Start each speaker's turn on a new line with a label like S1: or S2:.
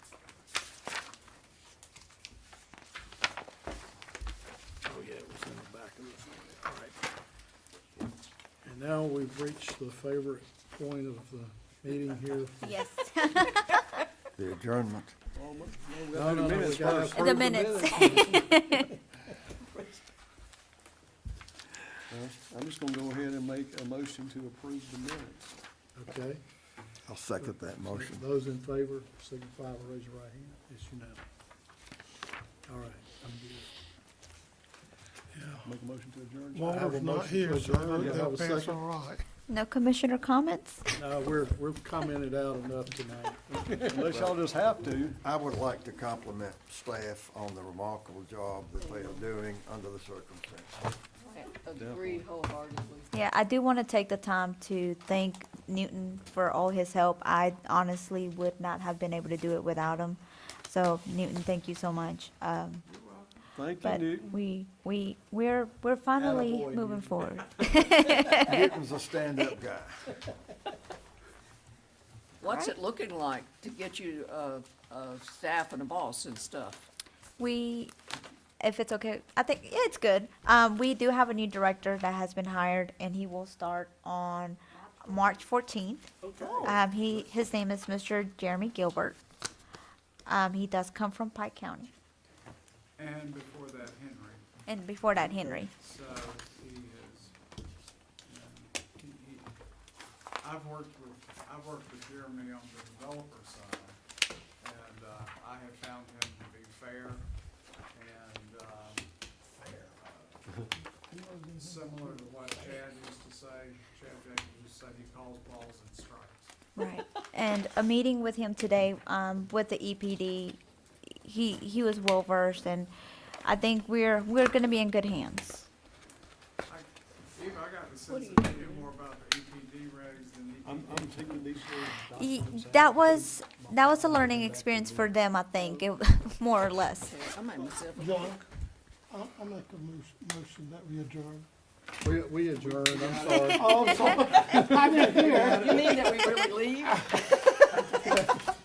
S1: Oh, now we've reached the favorite point of the meeting here.
S2: Yes,
S3: The adjournment.
S1: No, no, no, we gotta approve
S2: the minutes.
S4: Well, I'm just gonna go ahead and make a motion to approve the minutes.
S1: Okay,
S3: I'll second that motion.
S1: those in favor signify by raising your right hand. It's unanimous. All right, I'm good.
S4: Make a motion to adjourn.
S1: I have a
S5: Walter's not
S1: motion to
S5: here, so
S1: adjourn.
S5: that-
S1: Do you have a
S5: that part's
S1: second?
S5: all right.
S2: No commissioner comments?
S1: No, we're, we've commented out enough tonight.
S4: Unless y'all just have to.
S3: I would like to compliment staff on the remarkable job that they are doing under the circumstances.
S6: Agreed wholeheartedly.
S2: Yeah, I do want to take the time to thank Newton for all his help. I honestly would not have been able to do it without him. So Newton, thank you so much. Um,
S4: Thank you,
S2: But
S4: Newton.
S2: we, we, we're, we're finally
S1: Attaboy,
S2: moving forward.
S3: Newton's a stand-up guy.
S6: What's it looking like to get you a, a staff and a boss and stuff?
S2: We, if it's okay, I think yeah, it's good. Um, we do have a new director that has been hired, and he will start on March fourteenth. Um, he his name is Mr. Jeremy Gilbert. Um, he does come from Pike County,
S7: And before that, Henry.
S2: and before that, Henry.
S7: So he is, um, he, he, I've worked with, I've worked with Jeremy on the developer side, and, uh, I have found him to be fair and, um, uh, similar to what Chad used to say, Chad Jenkins used to say he calls balls and strikes.
S2: Right. And a meeting with him today, um, with the EPD, he, he was well versed, and I think we're, we're gonna be in good hands.
S7: I, Eva, I got the sense
S6: do
S7: that you knew more about the EPD regs than E EPD.
S4: I'm, I'm taking these little
S2: Y-
S4: documents out.
S2: That was, that was a learning experience for them, I think, it, more or less.
S6: Okay, I made myself a
S5: John, I'll, I'll make a mo- motion that we adjourn.
S1: We, we adjourn, I'm sorry.
S5: Oh, I'm sorry. I didn't hear.
S6: You mean that we really leave?